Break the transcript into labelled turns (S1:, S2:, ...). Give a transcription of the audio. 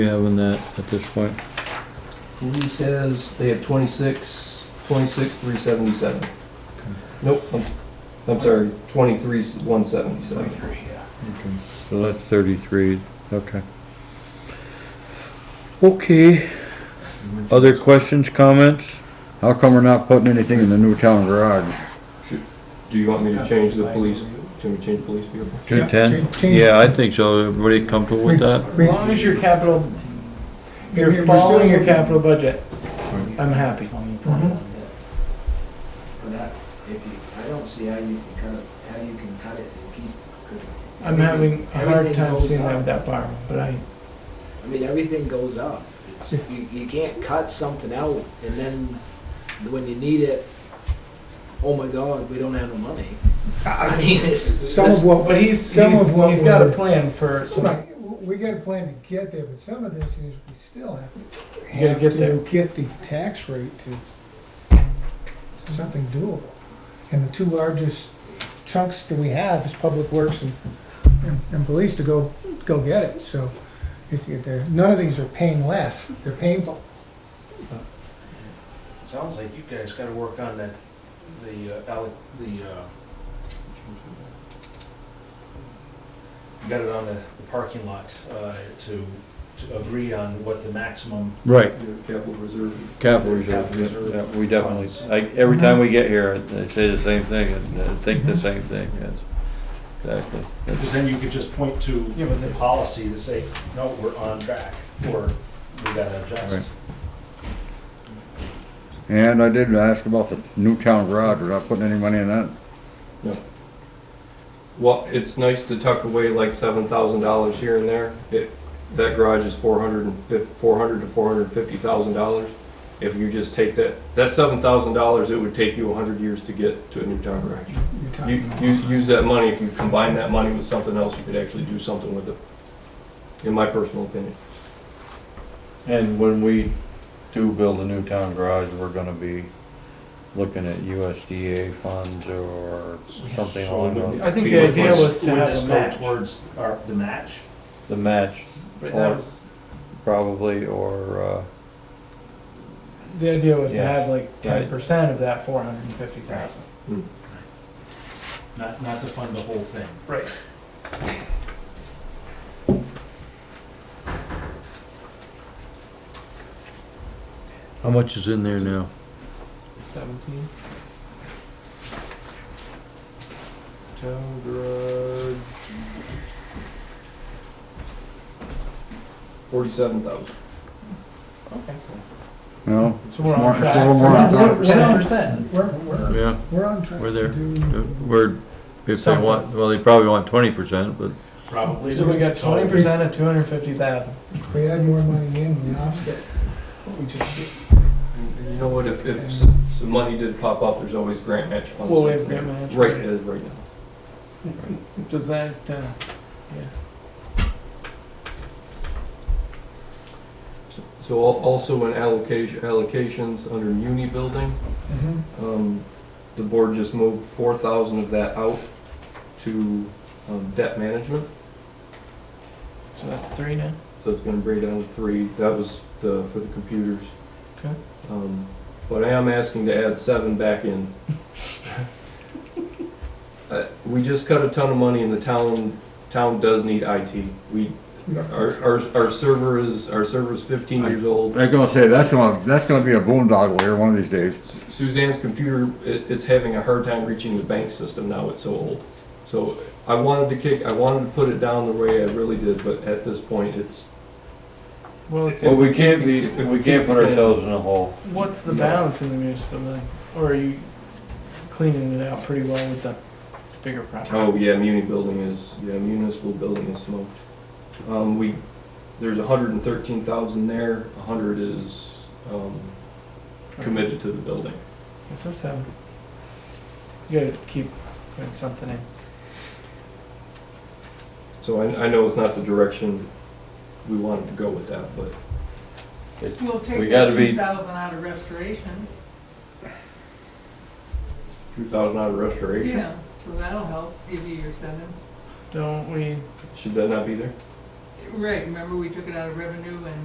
S1: we have in that at this point?
S2: Police has, they have 26, 26, 377. Nope, I'm, I'm sorry, 23, 177.
S1: Okay, So that's thirty-three, okay. Okay, other questions, comments?
S3: How come we're not putting anything in the new town garage?
S2: Do you want me to change the police, can we change the police vehicle?
S1: To
S4: Yeah,
S1: ten?
S4: change- change-
S1: Yeah, I think so. Everybody comfortable with that?
S4: We-
S5: As long as your capital,
S4: we're
S5: you're
S4: still-
S5: following your capital budget, I'm happy.
S6: But I, if you, I don't see how you can cut, it- how you can cut it and keep, because.
S5: I'm having a hard
S6: Everything
S5: time
S6: goes
S5: seeing that
S6: up.
S5: with that bar, but I,
S6: I mean, everything goes up. It's, you, you can't cut something out and then when you need it, oh my God, we don't have the money. I mean, it's,
S4: Some of
S6: this,
S4: what,
S5: but he's,
S4: some
S5: he's,
S4: of what
S5: he's got a
S4: we're,
S5: plan for some,
S4: right, w- we got a plan to get there, but some of this is we still have,
S5: You gotta
S4: have
S5: get there.
S4: to get the tax rate to something doable. And the two largest chunks that we have is public works and, and, and police to go, go get it, so it's to get there. None of these are paying less, they're painful.
S7: Sounds like you guys gotta work on that, the, uh, alloc- the, uh, you got it on the the parking lot, uh, to, to agree on what the maximum.
S1: Right,
S2: Your Capital reserve.
S1: capital reserve,
S7: Capital reserve.
S1: yeah, we definitely, like, every time we get here, I say the same thing, and I think the same thing, yes. Exactly.
S7: Because
S1: That's-
S7: then you could just point to
S5: yeah, but
S7: the
S5: there's,
S7: policy to say, no, we're on track, or we gotta
S1: Right.
S7: adjust.
S3: And I did ask about the new town garage, we're not putting any money in that.
S2: Well, it's nice to tuck away like seven thousand dollars here and there. It, that garage is four hundred and fif, four hundred to four hundred and fifty thousand dollars. If you just take that, that seven thousand dollars, it would take you a hundred years to get to a new town garage.
S4: You're talking
S2: You,
S4: about-
S2: you use that money, if you combine that money with something else, you could actually do something with it, in my personal opinion.
S1: And when we do build a new town garage, we're gonna be looking at USDA funds or something
S7: So
S1: along
S7: it would
S1: those,
S7: be-
S5: I think the idea
S7: would-
S5: was to
S7: would
S5: have
S7: this
S5: a
S7: go
S5: match.
S7: Towards our, the match?
S1: the match
S5: but that
S1: Or-
S5: was,
S1: probably, or, uh,
S5: the idea was to
S1: Yes,
S5: have like
S1: right.
S5: ten percent of that four hundred and fifty thousand.
S7: Not, not to fund the whole thing.
S5: Right.
S1: how much is in there now?
S5: Seventeen,
S2: Town garage. Forty-seven thousand.
S5: okay.
S3: No,
S5: So we're
S3: It's more-
S5: on
S3: it's a
S5: track.
S3: little more on
S4: track.
S5: We're- Ten percent.
S4: We're, we're,
S1: Yeah.
S4: we're on track
S1: We're there.
S4: to do.
S1: We're, if they want, well, they probably want twenty percent, but
S7: Probably.
S5: So we got twenty percent of two hundred and fifty thousand.
S4: We add more money in, we offset what we just did.
S2: You know what, if, if some, some money did pop up, there's always grant match funds.
S5: Well, we have grant match.
S2: Right, it is right now.
S5: Does that, uh, yeah.
S2: So al- also in allocation, allocations under muni building,
S4: Mhm.
S2: um, the board just moved four thousand of that out to, um, debt management.
S5: So that's three now?
S2: So it's gonna bring down three, that was the, for the computers.
S5: Okay.
S2: Um, But I am asking to add seven back in. Uh, We just cut a ton of money and the town, town does need IT. We,
S4: We got
S2: our, our, our server is, our server's fifteen years old.
S3: they're gonna say, that's gonna, that's gonna be a boondoggle here one of these days.
S2: Suzanne's computer, it, it's having a hard time reaching the bank system now, it's so old. So I wanted to kick, I wanted to put it down the way I really did, but at this point, it's,
S5: Well, it's-
S1: Well, we can't be, we can't put ourselves in a hole.
S5: what's the balance in the municipal building? Or are you cleaning it out pretty well with the bigger project?
S2: Oh, yeah, muni building is, yeah, municipal building is smoked. Um, we, there's a hundred and thirteen thousand there, a hundred is, um, committed to the building.
S5: So seven. You gotta keep putting something in.
S2: So I, I know it's not the direction we wanted to go with that, but
S1: We
S8: We'll take
S1: gotta
S8: that
S1: be-
S8: two thousand out of restoration,
S2: two thousand out of restoration,
S8: yeah, so that'll help, give you your seven.
S5: Don't we,
S2: should that not be there?
S8: Right, remember we took it out of revenue and